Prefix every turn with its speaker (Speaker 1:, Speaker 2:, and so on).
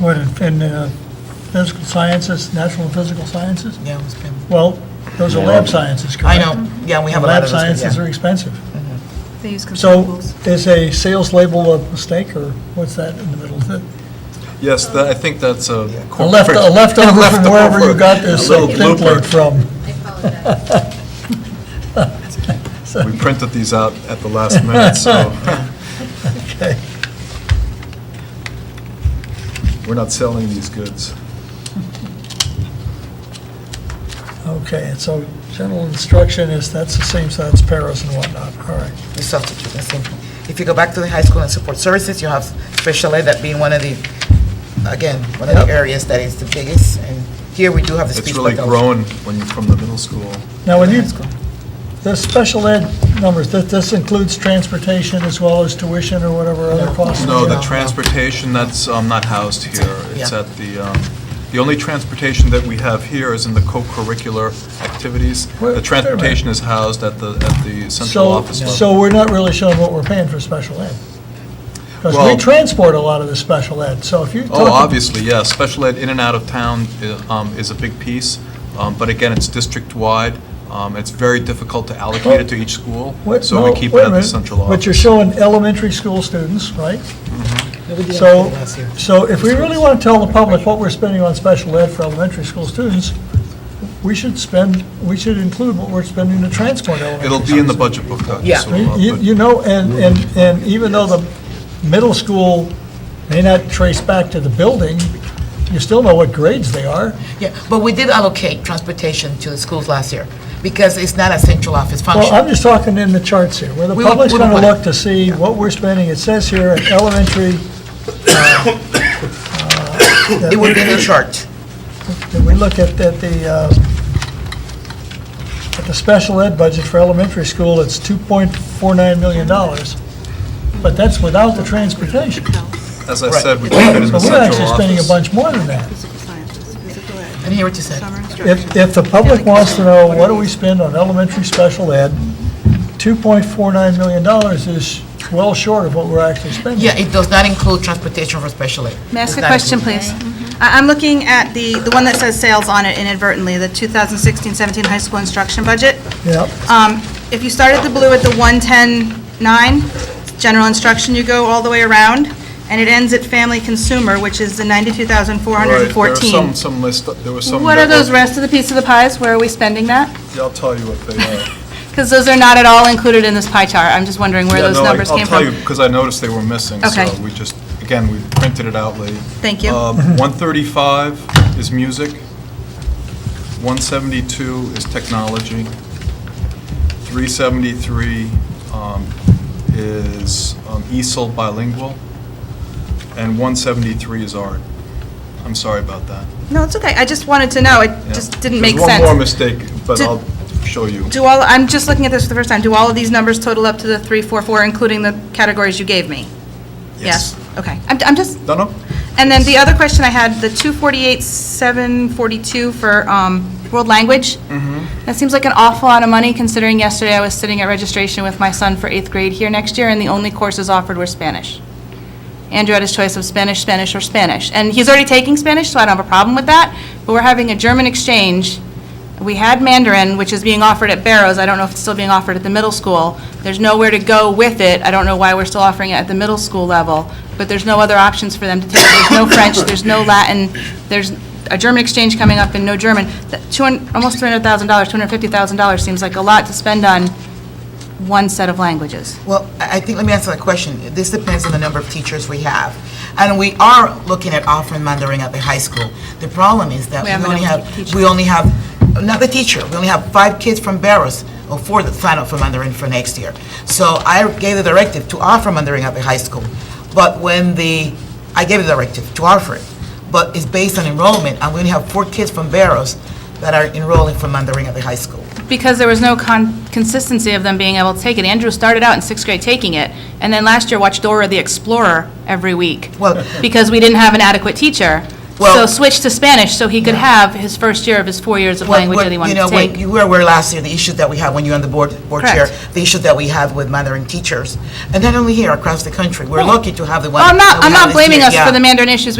Speaker 1: what, in uh, physical sciences, natural and physical sciences?
Speaker 2: Yeah, it's been,
Speaker 1: Well, those are lab sciences,
Speaker 2: I
Speaker 1: correct?
Speaker 2: know, yeah, we have a lot
Speaker 1: Lab
Speaker 2: of those. yeah.
Speaker 1: sciences are expensive.
Speaker 3: They use
Speaker 1: So
Speaker 3: consumables.
Speaker 1: is a sales label a mistake, or what's that in the middle? of it?
Speaker 4: Yes, that- I think that's a
Speaker 1: A
Speaker 4: corporate.
Speaker 1: left, a leftover from wherever you
Speaker 4: Leftover.
Speaker 1: got this
Speaker 4: A little
Speaker 1: uh, template
Speaker 4: blooper.
Speaker 1: from.
Speaker 5: I apologize.
Speaker 4: We printed these out at the last minute, so
Speaker 1: Okay.
Speaker 4: we're not selling these goods.
Speaker 1: Okay, and so general instruction is, that's the same, so that's paras and whatnot, all right.
Speaker 2: We substitute, that's simple. If you go back to the high school and support services, you have special ed, that being one of the, again, one of the areas that is the biggest, and here we do have the speech
Speaker 4: It's really
Speaker 2: pathology.
Speaker 4: grown when you're from the middle school.
Speaker 1: Now, when you,
Speaker 2: High school.
Speaker 1: the special ed numbers, this, this includes transportation as well as tuition or whatever other costs?
Speaker 4: No, the
Speaker 2: no.
Speaker 4: transportation, that's um, not housed here. It's
Speaker 2: Yeah.
Speaker 4: at the, um, the only transportation that we have here is in the co-curricular activities.
Speaker 1: Wait,
Speaker 4: The transportation is housed at the, at the central
Speaker 1: So,
Speaker 4: office level.
Speaker 1: so we're not really showing what we're paying for special ed? Because we
Speaker 4: Well-
Speaker 1: transport a lot of the special ed, so if you're
Speaker 4: Oh,
Speaker 1: talking,
Speaker 4: obviously, yes. Special ed in and out of town i- um, is a big piece, um, but again, it's district-wide. Um, It's very difficult to allocate it to each school,
Speaker 1: Wait,
Speaker 4: so we
Speaker 1: no,
Speaker 4: keep
Speaker 1: wait a
Speaker 4: it at the
Speaker 1: minute.
Speaker 4: central
Speaker 1: But you're
Speaker 4: office.
Speaker 1: showing elementary school students, right?
Speaker 2: We did
Speaker 1: So,
Speaker 2: that last year.
Speaker 1: so if we really want to tell the public what we're spending on special ed for elementary school students, we should spend, we should include what we're spending to transport elementary.
Speaker 4: It'll be in the budget book, uh, Dr.
Speaker 2: Yeah.
Speaker 4: Silva,
Speaker 1: You,
Speaker 4: but-
Speaker 1: you know, and, and, and even though the middle school may not trace back to the building, you still know what grades they are.
Speaker 2: Yeah, but we did allocate transportation to the schools last year, because it's not a central office
Speaker 1: Well, I'm
Speaker 2: function.
Speaker 1: just talking in the charts here, where the
Speaker 2: We don't-
Speaker 1: public's
Speaker 2: we don't
Speaker 1: gonna
Speaker 2: want
Speaker 1: look
Speaker 2: it.
Speaker 1: to see what we're spending. It says here at elementary,
Speaker 2: It would be in the chart.
Speaker 1: Did we look at, at the, uh, at the special ed budget for elementary school, it's $2.49 million, but that's without the transportation.
Speaker 4: As I
Speaker 2: Right.
Speaker 4: said, we keep it in
Speaker 1: So
Speaker 4: the
Speaker 1: we're
Speaker 4: central
Speaker 1: actually spending a
Speaker 4: office.
Speaker 1: bunch more than that.
Speaker 3: Physical sciences, physical
Speaker 2: And
Speaker 3: ed,
Speaker 2: hear what you said.
Speaker 3: summer instruction.
Speaker 1: If, if the public wants to know, what do we spend on elementary special ed, $2.49 million is well short of what we're actually spending.
Speaker 2: Yeah, it does not include transportation for special ed.
Speaker 6: May I ask
Speaker 2: Does
Speaker 6: a
Speaker 2: not
Speaker 6: question,
Speaker 2: include-
Speaker 6: please? I- I'm looking at the, the one that says sales on it inadvertently, the 2016-17 high school instruction budget.
Speaker 1: Yeah.
Speaker 6: Um, If you start at the blue at the 110.9, general instruction, you go all the way around, and it ends at family consumer, which is the
Speaker 4: Right, There are some,
Speaker 6: 92,414.
Speaker 4: some list, there was some.
Speaker 6: What
Speaker 4: that
Speaker 6: are those
Speaker 4: were-
Speaker 6: rest of the piece of the pies? Where are we spending that?
Speaker 4: Yeah, I'll tell you what they are.
Speaker 6: Because those are not at all included in this pie chart. I'm just wondering where
Speaker 4: Yeah,
Speaker 6: those
Speaker 4: no, I-
Speaker 6: numbers came from.
Speaker 4: I'll tell you, because I noticed they were missing, so
Speaker 6: Okay.
Speaker 4: we just, again, we printed it out late.
Speaker 6: Thank you.
Speaker 4: Um, 135 is music, 172 is technology, 373 um, is um, ESOL bilingual, and 173 is art. I'm sorry about that.
Speaker 6: No, it's okay. I just wanted to know. It
Speaker 4: Yeah.
Speaker 6: just didn't make sense.
Speaker 4: There's one more mistake, but
Speaker 6: Did-
Speaker 4: I'll show you.
Speaker 6: Do all, I'm just looking at this for the first time, do all of these numbers total up to the 344, including the categories you gave me? Okay, I'm, I'm just,
Speaker 4: No, no?
Speaker 6: and then the other question I had, the 248, 742 for um, world language? That seems like an awful lot of money, considering yesterday I was sitting at registration with my son for eighth grade here next year, and the only courses offered were Spanish. Andrew had his choice of Spanish, Spanish, or Spanish. And he's already taking Spanish, so I don't have a problem with that, but we're having a German exchange. We had Mandarin, which is being offered at Barrows, I don't know if it's still being offered at the middle school. There's nowhere to go with it, I don't know why we're still offering it at the middle school level, but there's no other options for them to take. There's no French, there's no Latin, there's a German exchange coming up and no German. That two hun- Almost $300,000, $250,000 seems like a lot to spend on one set of languages.
Speaker 2: Well, I I think, let me answer that question. This depends on the number of teachers we have. And we are looking at offering Mandarin at the high school. The problem is that
Speaker 6: We have
Speaker 2: we only
Speaker 6: enough
Speaker 2: have,
Speaker 6: teachers.
Speaker 2: we only have, not the teacher, we only have five kids from Barrows, or four that sign up for Mandarin for next year. So I gave the directive to offer Mandarin at the high school, but when the, I gave the directive to offer it, but it's based on enrollment, and we only have four kids from Barrows that are enrolling for Mandarin at the high school.
Speaker 6: Because there was no con- consistency of them being able to take it. Andrew started out in sixth grade taking it, and then last year watched Dora the Explorer every week.
Speaker 2: Well-
Speaker 6: Because we didn't have an adequate teacher. So
Speaker 2: Well-
Speaker 6: switched to Spanish, so he could have his first year of his four years of
Speaker 2: Well,
Speaker 6: language
Speaker 2: well,
Speaker 6: that he wanted
Speaker 2: You
Speaker 6: to
Speaker 2: know, when
Speaker 6: take.
Speaker 2: you were aware last year, the issue that we had when you were on the board, board chair,
Speaker 6: Correct.
Speaker 2: the issue that we have with Mandarin teachers, and not only here, across the country. We're lucky to have the one.
Speaker 6: Well, I'm
Speaker 2: that
Speaker 6: not,
Speaker 2: we
Speaker 6: I'm
Speaker 2: have
Speaker 6: not
Speaker 2: this
Speaker 6: blaming
Speaker 2: year,
Speaker 6: us
Speaker 2: yeah.
Speaker 6: for the Mandarin issues